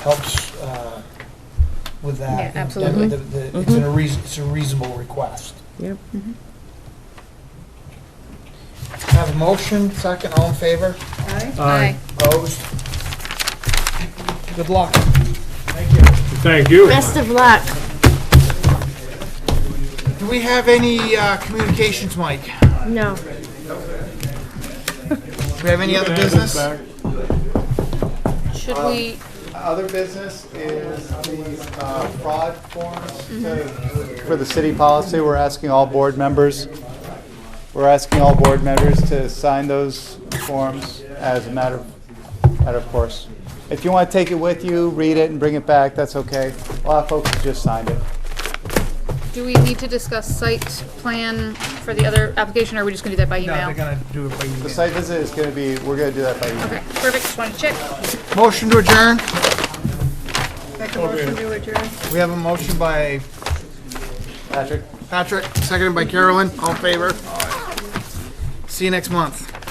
helps uh, with Yeah, that. And absolutely. the- the- the- It's a reason, it's a reasonable request. Yep. Mm-hmm. Have a motion, second, all in favor? Aye. Opposed? Good luck. Thank you. Best of luck. Do we have any uh, communications, Mike? Do No. we have any other business? Should we, Other business is the uh, fraud forms to- for the city policy. We're asking all board members, we're asking all board members to sign those forms as a matter, of- matter of course. If you want to take it with you, read it and bring it back, that's okay. A lot of folks have just signed it. do we need to discuss site plan for the other application, or are we just gonna do that by No, they're email? gonna do it by The email. site visit is going to be, we're going to do that by email. Okay, perfect, just wanted to check. Motion to adjourn? Make a motion to adjourn. We have a motion by Patrick? Patrick, seconded by Carolyn, all in favor? See you next month.